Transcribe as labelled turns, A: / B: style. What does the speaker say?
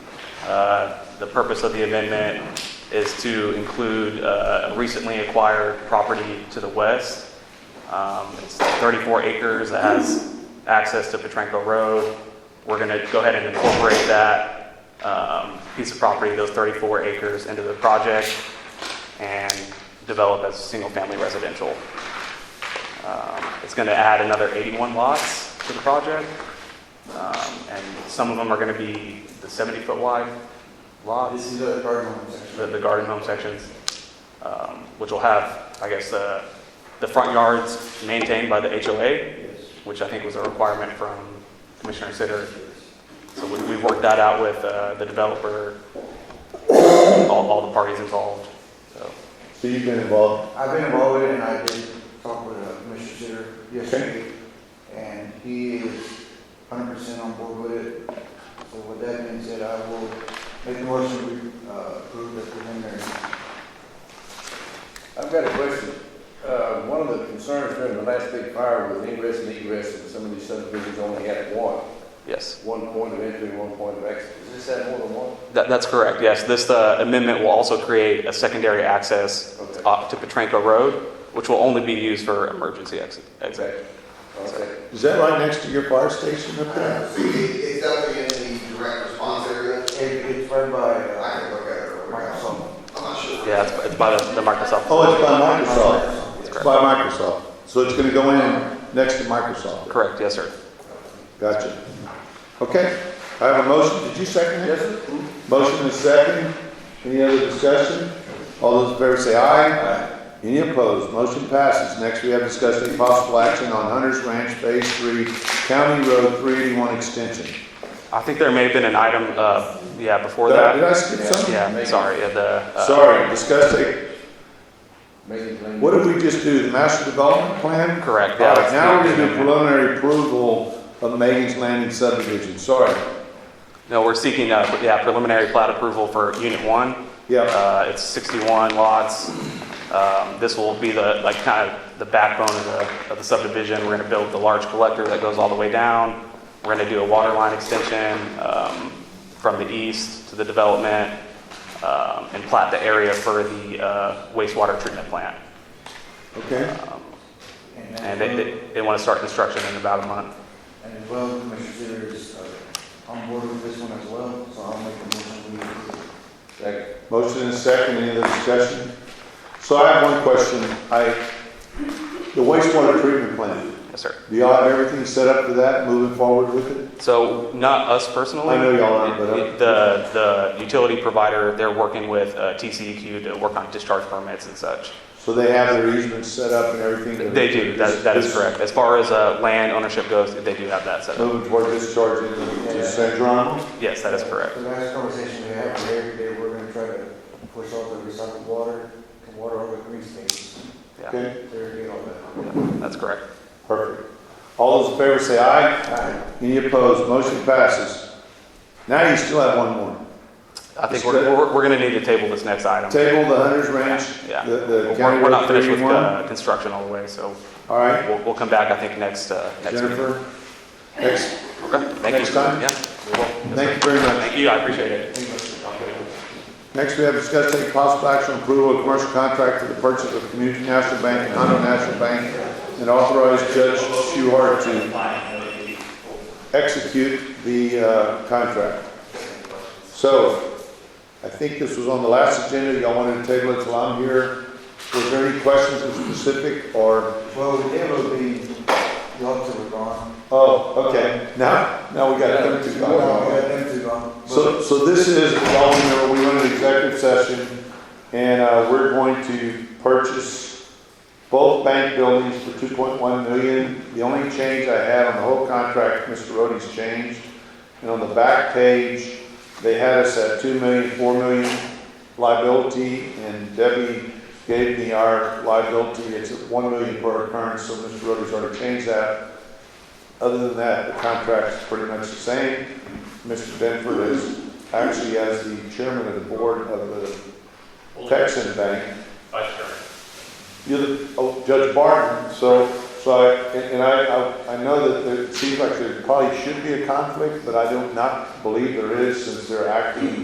A: Uh, The purpose of the amendment is to include uh, recently acquired property to the west. Um, It's 34 acres that has access to Petranco Road. We're going to go ahead and incorporate that um, piece of property, those 34 acres, into the project and develop as single-family residential. Um, It's going to add another 81 lots to the project, Um, and some of them are going to be the 70-foot wide lots
B: Uh, This is a garden home section.
A: the, the garden home sections, um, which will have, I guess, the, the front yards maintained by the HOA,
B: Yes.
A: which I think was a requirement from Commissioner Sitter. So we, we worked that out with, uh, the developer, all, all the parties involved, so.
C: So you've been involved?
B: I've been involved with it, and I did talk with uh, Mr. Sitter yesterday, and he is hundred percent on board with it. So with that being said, I will make a motion to uh, approve the preliminary.
D: I've got a question. Uh, One of the concerns during the last big fire was ingress and egress, and some of these subdivisions only had one,
A: Yes,
D: one point of entry, one point of exit. Does this have more than one?
A: that, that's correct, yes. This, uh, amendment will also create a secondary access
D: Okay.
A: uh, to Petranco Road, which will only be used for emergency exit, exit.
D: Exactly. Okay.
C: Is that right next to your fire station up there?
E: Uh, It's definitely in the direct response area.
B: It- It's run by
E: I
B: uh,
E: can look at it. real quick.
B: Microsoft.
E: I'm not sure.
A: Yeah, it's, it's by the the Microsoft.
C: Oh, it's by Microsoft.
A: That's
C: It's
A: correct.
C: by Microsoft. So it's gonna go in next to Microsoft.
A: Correct, yes, sir.
C: Gotcha. Okay, I have a motion. Did you second it? Yes, Motion is second. Any other discussion? All those in favor say aye. Any opposed? Motion passes. Next, we have discussion of possible action on Hunter's Ranch Phase Three, County Road three eighty-one extension.
A: I think there may have been an item, uh, yeah, before
C: Did I-
A: that.
C: Did I skip something?
A: Yeah, sorry, yeah, the. uh,
C: Sorry, discuss take
D: Megan's name.
C: What did we just do, the master development plan?
A: Correct,
C: All
A: yeah.
C: right, now we're
A: that's the
C: gonna do
A: amendment.
C: preliminary approval of Megan's Landing subdivision, sorry.
A: No, we're seeking, uh, yeah, preliminary plat approval for Unit 1.
C: Yeah,
A: Uh, It's 61 lots. Um, This will be the, like, kind of the backbone of the, of the subdivision. We're going to build the large collector that goes all the way down. We're going to do a water line extension um, from the east to the development um, and plat the area for the uh, wastewater treatment plant.
C: okay.
A: And they- they, they want to start construction in about a month.
B: And as well, Mr. Sitter is uh, on board with this one as well, so I'll make a motion to approve.
D: Second.
C: Motion and second, any other discussion? So I have one question, I, the wastewater treatment plant,
A: Yes, sir.
C: do y'all have everything set up for that, moving forward with it?
A: So not us personally.
C: I know y'all aren't, but, uh,
A: The, the utility provider, they're working with uh, TCEQ to work on discharge permits and such.
C: So they have their easements set up and everything?
A: They do, that, that is correct. As far as uh, land ownership goes, they do have that set up.
C: Moving toward discharge into the San Jeronimo?
A: Yes, that is correct.
B: The last conversation we had with Eric, they were gonna try to push all the recycled water, and water over the green spaces.
A: Yeah,
C: Okay,
B: They're doing all that.
A: that's correct.
C: perfect. All those in favor say aye.
B: Aye.
C: Any opposed? Motion passes. Now you still have one more.
A: I think we're, we're, we're going to need to table this next item.
C: Table the Hunter's Ranch,
A: Yeah.
C: the, the
A: We're
C: county
A: we're
C: road
A: not finished with
C: 381.
A: uh, construction all the way, so
C: All right,
A: we'll, we'll come back, I think, next, uh, next meeting.
C: Jennifer. Next,
A: Okay, thank you.
C: next time?
A: Yeah. Well, yes, sir.
C: thank you very much.
A: Thank you, I appreciate it.
C: Next, we have discussed take possible action on approval of commercial contract for the purchase of Community National Bank and Hondo National Bank and authorize Judge Shuhart to execute the, uh, contract. So, I think this was on the last agenda, y'all wanted to table it till I'm here. Was there any questions in specific or?
B: Well, the day will be, the officer was gone.
C: Oh, okay, now, now we got to come to
B: We got
C: God.
B: them two gone.
C: So, so this is, y'all remember, we went into executive session, and, uh, we're going to purchase both bank buildings for two point one million. The only change I had on the whole contract, Mr. Rody's changed, and on the back page, they had us at two million, four million liability, and Debbie gave me our liability, it's at one million per occurrence, so Mr. Rody's already changed that. Other than that, the contract's pretty much the same. Mr. Benford is actually as the chairman of the board of the Texan Bank. You're the, oh, Judge Barton, so, so I, and and I, I- I know that there- it seems like there probably should be a conflict, but I do not believe there is since they're acting